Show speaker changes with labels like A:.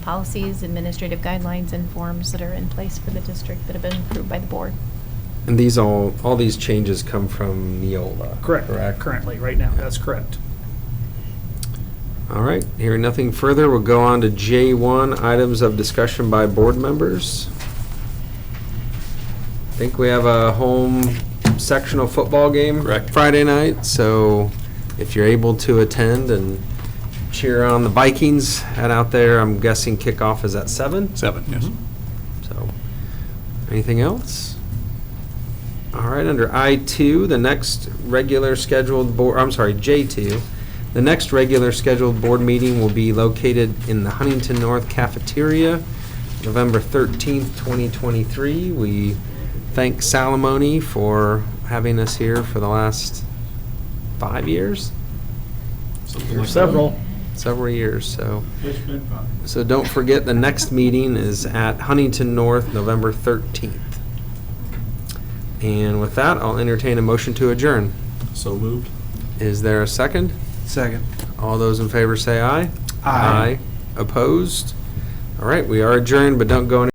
A: policies, administrative guidelines, and forms that are in place for the district that have been approved by the board.
B: And these all, all these changes come from Neola?
C: Correct, currently, right now, that's correct.
B: All right, hearing nothing further, we'll go on to J1, items of discussion by board members. I think we have a home sectional football game.
D: Correct.
B: Friday night, so if you're able to attend and cheer on the Vikings, head out there. I'm guessing kickoff is at seven,
D: Seven, yes.
B: so. Anything else? All right, under I2, the next regular scheduled board, I'm sorry, J2, the next regular scheduled board meeting will be located in the Huntington North Cafeteria, November 13th, 2023. We thank Salamone for having us here for the last five years,
D: Something like that.
C: Several.
B: several years, so.
E: It's been fun.
B: So don't forget, the next meeting is at Huntington North, November 13th. And with that, I'll entertain a motion to adjourn.
D: So moved.
B: Is there a second?
C: Second.
B: All those in favor say aye.
C: Aye.
B: Opposed? All right, we are adjourned, but don't go any...